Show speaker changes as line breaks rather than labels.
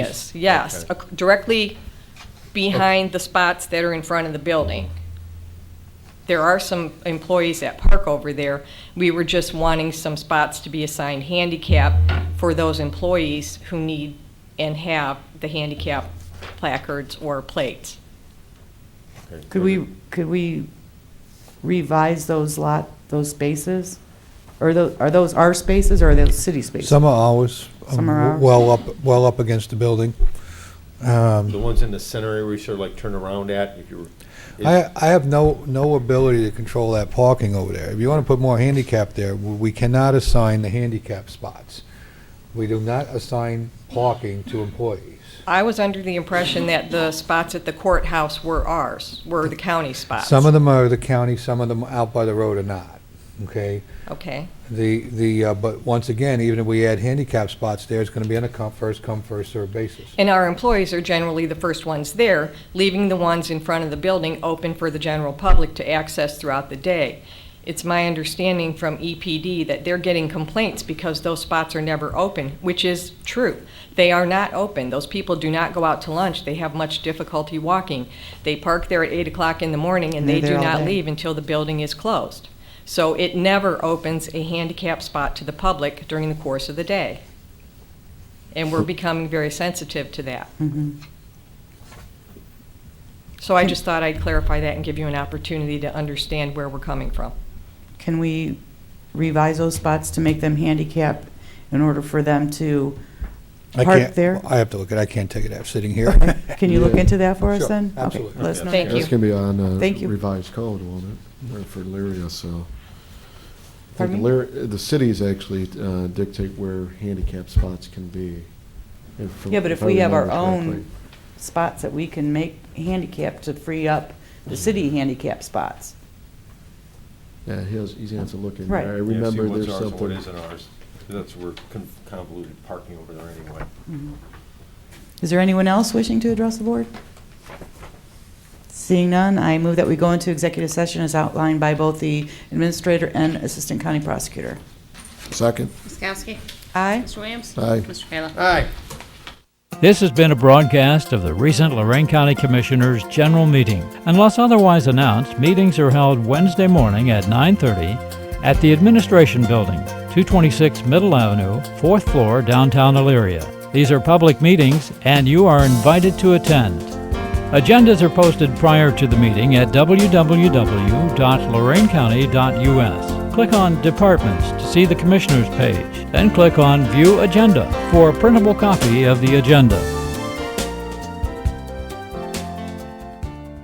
Yes, yes,
Okay.
ac- directly behind the spots that are in front of the building. There are some employees that park over there. We were just wanting some spots to be assigned handicap for those employees who need and have the handicap placards or plates.
Okay,
Could
so
we,
the-
could we revise those lot, those spaces? Or tho, are those our spaces or are those city spaces?
Some are ours. um,
Some are ours.
Well up, well up against the building.
The ones in the center area we sort of like turn around at, if you were.
I, I have no, no ability to control that parking over there. If you want to put more handicap there, w- we cannot assign the handicap spots. We do not assign parking to employees.
I was under the impression that the spots at the courthouse were ours, were the county spots.
Some of them are the county, some of them out by the road are not, okay?
Okay,
The, the, uh, but once again, even if we add handicap spots there, it's going to be on a come, first come, first served basis.
and our employees are generally the first ones there, leaving the ones in front of the building open for the general public to access throughout the day. It's my understanding from EPD that they're getting complaints because those spots are never open, which is true. They are not open. Those people do not go out to lunch. They have much difficulty walking. They park there at eight o'clock in the morning and
And
they
they're
do
there all
not
day.
leave until the building is closed. So it never opens a handicap spot to the public during the course of the day. And we're becoming very sensitive to that.
Mhm.
So I just thought I'd clarify that and give you an opportunity to understand where we're coming from.
Can we revise those spots to make them handicap in order for them to
I
park
can't-
there?
I have to look at, I can't take it out sitting here.
Can you look
Yeah.
into that for us
Sure,
then? Okay,
absolutely.
let us know.
Thank you.
That's going to be on uh,
Thank you.
revised code, won't it, Or for Elyria, so. I think
Pardon me?
Elyria- The cities actually uh, dictate where handicap spots can be. if-
Yeah, but if
I
we have our
remember
own
correctly.
spots that we can make handicap to free up the city handicap spots.
Yeah, he has, he's going to have to look in.
Right.
I
Yeah,
Yeah, see
remember
what's
there's
ours and
something.
What isn't ours, that's, we're con- convoluted parking over there anyway.
Is there anyone else wishing to address the board? Seeing none, I move that we go into executive session as outlined by both the administrator and assistant county prosecutor.
Second.
Ms. Kowski?
Aye.
Mr. Williams?
Aye.
Mr. Kayla?
Aye.
This has been a broadcast of the recent Lorraine County Commissioners' General Meeting. Unless otherwise announced, meetings are held Wednesday morning at 9:30 at the Administration Building, 226 Middle Avenue, 4th floor, downtown Elyria. These are public meetings, and you are invited to attend. Agendas are posted prior to the meeting at www.lorainecounty.us. Click on Departments to see the Commissioners page, then click on View Agenda for a printable copy of the agenda.